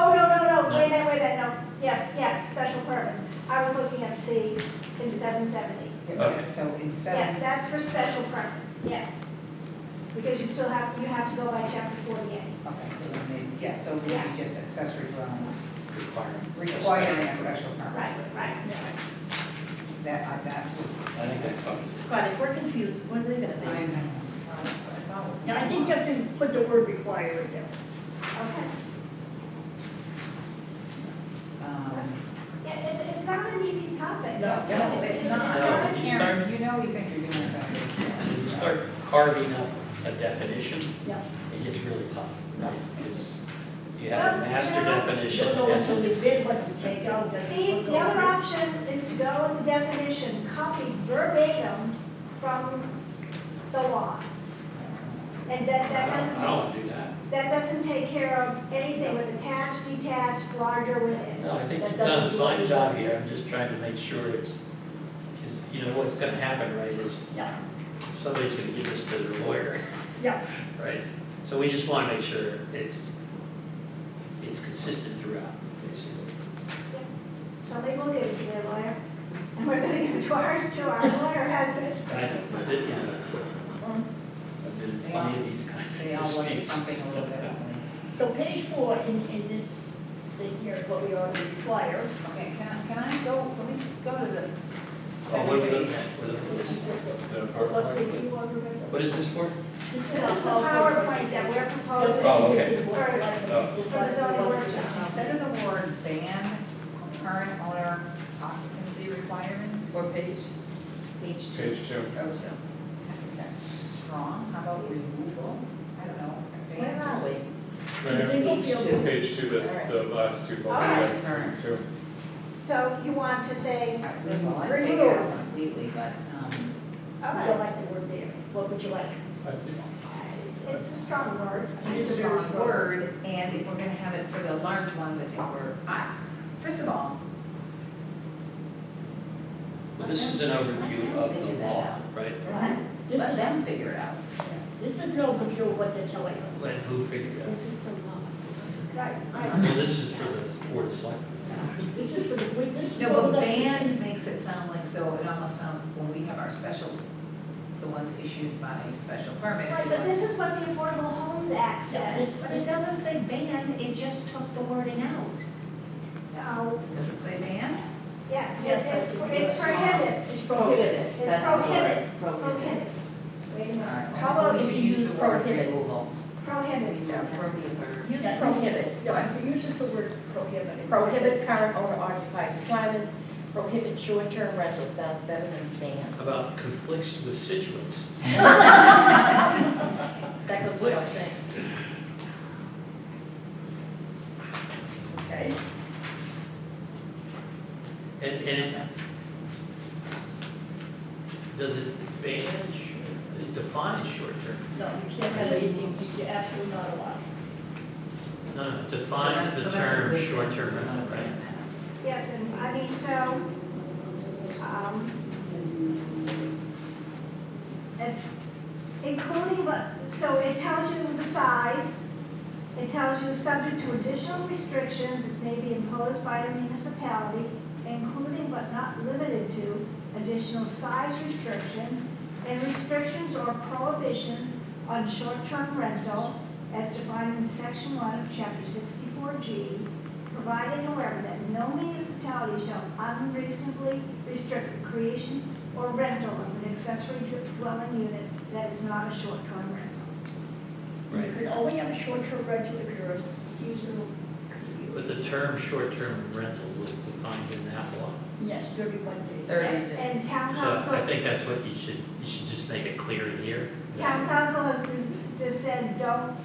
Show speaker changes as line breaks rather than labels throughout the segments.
Oh, yes, yes, special purpose. I was looking at C in seven seventy.
Okay.
So instead of.
Yes, that's for special purpose, yes. Because you still have, you have to go by chapter forty-eight.
Okay, so then maybe, yeah, so maybe
Yeah.
just accessory dwellings
Requirement.
requiring a special permit.
Right, right.
That, I- that would.
I think that's something.
God, if we're confused, what are they
I
gonna
know. It's Um, it's always.
Now, I think you have to put the word require in there.
Okay.
Um,
Yeah, it's, it's not an easy topic.
No,
No, it's not.
not an
No,
easy-
you start-
Karen, you know we think you're doing a better job.
When you start carving up a definition,
Yeah.
it gets really tough, right? Because you
Well,
have a master
you know,
definition.
Don't know what to
and-
leave in, what to take out, that's
See,
what
the other
goes
option is to go with the definition, copy verbatim from the law. And that, that
I don't- I
doesn't,
don't want to do that.
that doesn't take care of anything with attached, detached, larger within.
No, I think
That
you've done a
doesn't do
fine
it.
job here. I'm just trying to make sure it's, because, you know, what's going to happen, right, is
in. Yeah,
somebody's going to give this to their lawyer,
yeah,
right? So we just want to make sure it's, it's consistent throughout, basically.
So they will give it to their lawyer, and we're gonna give it to ours too, our lawyer has it.
I don't, but, it, you know, I've been in plenty of these kinds
They all
of
look at
disputes.
something a little differently.
so page four in, in this thing here, what we ought to require,
Okay, can I, can I go, let me go to the.
Oh, what are we
second
looking
page.
at? What are the-
this is this,
the
what
PowerPoint?
page you want to read?
What is this for?
This is
This is the
all-
PowerPoint that we're proposing.
Oh, okay.
This is what's like the
Oh.
design of the
Zoning
workshop.
workshop.
Instead of the word ban, current owner occupancy requirements. What page? Page two.
Page
I
two.
think that's strong, how about removal? I don't know.
Where are we?
The
Right.
Single field,
Page two, that's the last two bullets,
Alright.
yeah, two.
So you want to say,
Removal, I take it out completely, but, um,
all
I don't
right,
like the word there, what would you like?
I think-
it's a strong word.
it's
It's
a
a
strong
strong
word, and if we're gonna have it for the large ones, I think we're, I, first of all,
Well, this is an overview of the law, right?
This
let
is,
them figure it out.
this is no review of what they're telling us.
When who figured it out?
This is the law, this is.
Guys, I,
Well, this is for the board of selectmen.
this is for the, we- this is.
No,
what
but
we're gonna-
banned makes it sound like, so it almost sounds, when we have our special, the ones issued by special permit.
Right, but this is what the Affordable Homes Act
Yeah,
says.
this-
But it doesn't say banned, it just took the wording out.
Oh,
Does it say ban?
yeah, it-
Yes, I think
it- it's
it's-
prohibits.
It's prohibited.
It's
That's the word,
prohibits,
prohibits.
prohibits,
All right,
How about
we
if
can
you use
the word
prohibit?
Removal.
prohibits.
Yeah.
Use
Yeah,
prohibit.
Yeah, so use just the word prohibit.
Prohibit current owner occupied requirements, prohibit short-term rental, sounds better than ban.
About conflicts with situates.
That goes without saying.
Okay,
And, and it, does it ban, sh- it defines short-term?
no, you can't have anything, you're absolutely not allowed.
No, no, it
So that's-
defines
so
the
that's a
term
good-
short-term rental, right?
Yes, and I mean, so, um, and including what, so it tells you the size, it tells you subject to additional restrictions as may be imposed by a municipality, including but not limited to additional size restrictions and restrictions or prohibitions on short-term rental as defined in section one of chapter sixty-four G, provided however that no municipality shall unreasonably restrict the creation or rental of an accessory dwelling unit that is not a short-term rental.
You can only have a short-term rental if you're a seasonal.
But the term short-term rental was defined in that law.
Yes, thirty-one days.
Thirty.
Yes, And town
So I
council,
think that's what you should, you should just make it clear here.
town council has just- just said, don't,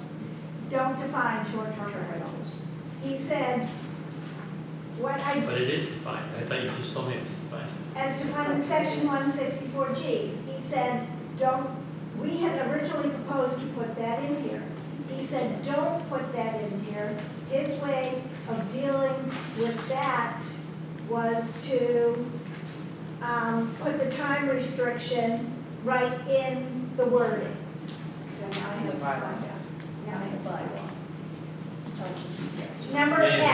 don't define short-term rentals. He said, what I
But it is defined, I thought you just told me it was defined.
as defined in section one sixty-four G. He said, don't, we had originally proposed to put that in here. He said, don't put that in here. His way of dealing with that was to, um, put the time restriction right in the wording. So now I have to find out. Now I
By
have to
bylaw. Tells us you can't.
Number
Yeah.
F.